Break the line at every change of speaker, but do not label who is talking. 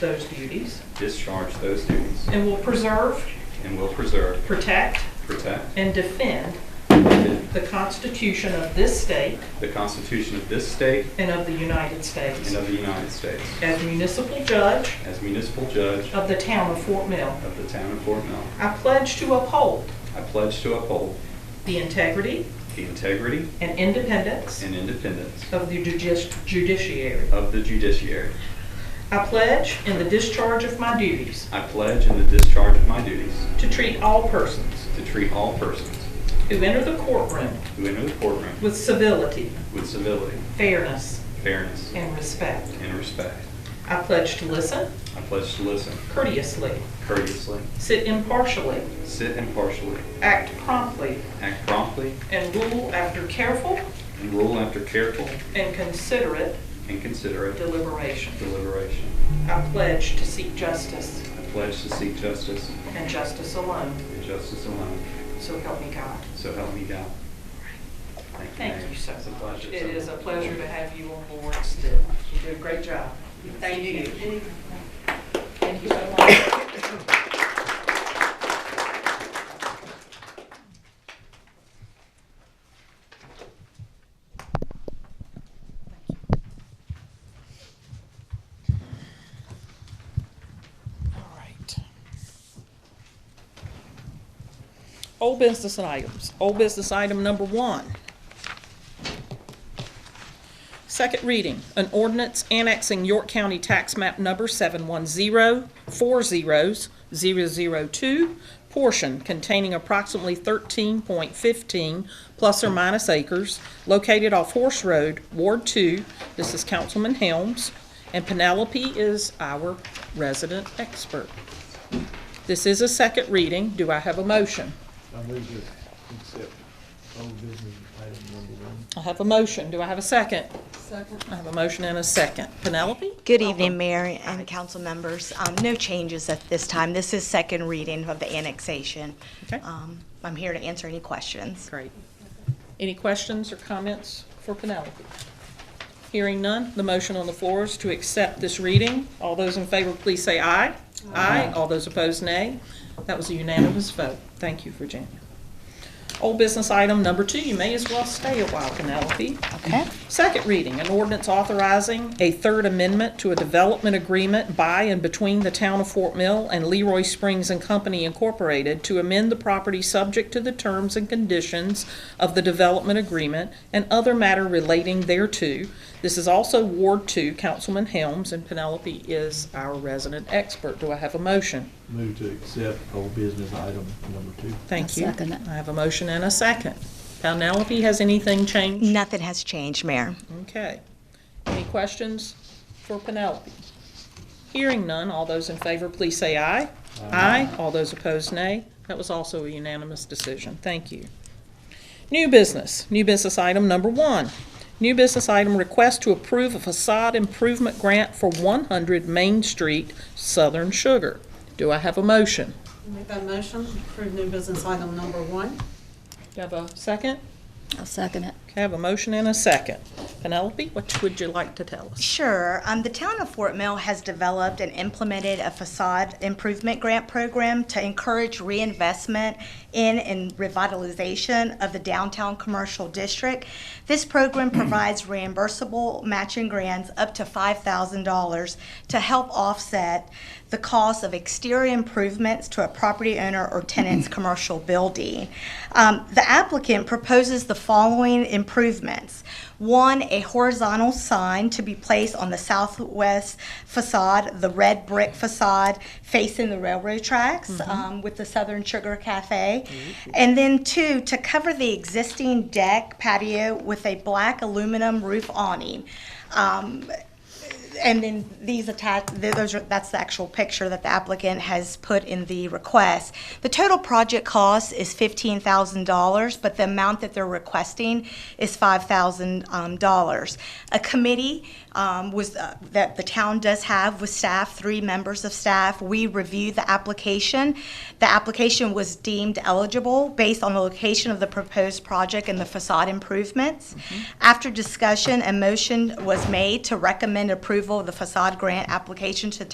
those duties
discharge those duties,
and will preserve,
and will preserve,
protect,
protect,
and defend
and defend
the Constitution of this state
the Constitution of this state
and of the United States.
and of the United States.
As municipal judge
As municipal judge
of the town of Fort Mill,
of the town of Fort Mill,
I pledge to uphold
I pledge to uphold
the integrity
the integrity
and independence
and independence
of the judici- judiciary.
of the judiciary.
I pledge in the discharge of my duties
I pledge in the discharge of my duties
to treat all persons
to treat all persons
who enter the courtroom
who enter the courtroom
with civility,
with civility,
fairness,
fairness,
and respect.
and respect.
I pledge to listen
I pledge to listen
courteously,
courteously,
sit impartially,
sit impartially,
act promptly,
act promptly,
and rule after careful
and rule after careful
and considerate
and considerate
deliberation.
deliberation.
I pledge to seek justice
I pledge to seek justice
and justice alone,
and justice alone,
so help me God.
so help me God.
Thank you so
It's a
much.
pleasure.
It is a pleasure to have you on board still. You do a great job. Thank you. Thank you so much. All right. Old business items. Old business item number one. Second reading, an ordinance annexing York County Tax Map Number 710400002, portion containing approximately 13.15 plus or minus acres located off Horse Road, Ward 2. This is Councilman Helms, and Penelope is our resident expert. This is a second reading. Do I have a motion?
I move to accept old business item number one.
I have a motion. Do I have a second? Second. I have a motion and a second. Penelope?
Good evening, Mayor and council members. Um, No changes at this time. This is second reading of the annexation.
Okay.
Um, I'm here to answer any questions.
Great. Any questions or comments for Penelope? Hearing none, the motion on the floor is to accept this reading. All those in favor, please say aye. Aye. All those opposed, nay. That was a unanimous vote. Thank you, Virginia. Old business item number two, you may as well stay a while, Penelope.
Okay.
Second reading, an ordinance authorizing a third amendment to a development agreement by and between the town of Fort Mill and Leroy Springs and Company Incorporated to amend the property subject to the terms and conditions of the development agreement and other matter relating thereto. This is also Ward Two, Councilman Helms, and Penelope is our resident expert. Do I have a motion?
Move to accept old business item number two.
Thank
I'll
you.
second it.
I have a motion and a second. Penelope, has anything changed?
Nothing has changed, Mayor.
Okay. Any questions for Penelope? Hearing none, all those in favor, please say aye. Aye. All those opposed, nay. That was also a unanimous decision. Thank you. New business, new business item number one. New business item, request to approve a facade improvement grant for 100 Main Street, Southern Sugar. Do I have a motion?
Make that motion, approve new business item number one.
Do I have a second?
I'll second it.
Okay, I have a motion and a second. Penelope, what would you like to tell us?
Sure. Um, The town of Fort Mill has developed and implemented a facade improvement grant program to encourage reinvestment in and revitalization of the downtown commercial district. This program provides reimbursable matching grants up to $5,000 to help offset the cost of exterior improvements to a property owner or tenant's commercial building. Um, The applicant proposes the following improvements. One, a horizontal sign to be placed on the southwest facade, the red brick facade facing the railroad tracks um, with the Southern Sugar Cafe. And then two, to cover the existing deck patio with a black aluminum roof awning. Um, and then these attach, th- those are, that's the actual picture that the applicant has put in the request. The total project cost is fifteen thousand dollars, but the amount that they're requesting is five thousand um, dollars. A committee um, was, uh, that the town does have with staff, three members of staff. We reviewed the application. The application was deemed eligible based on the location of the proposed project and the facade improvements. After discussion, a motion was made to recommend approval of the facade grant application to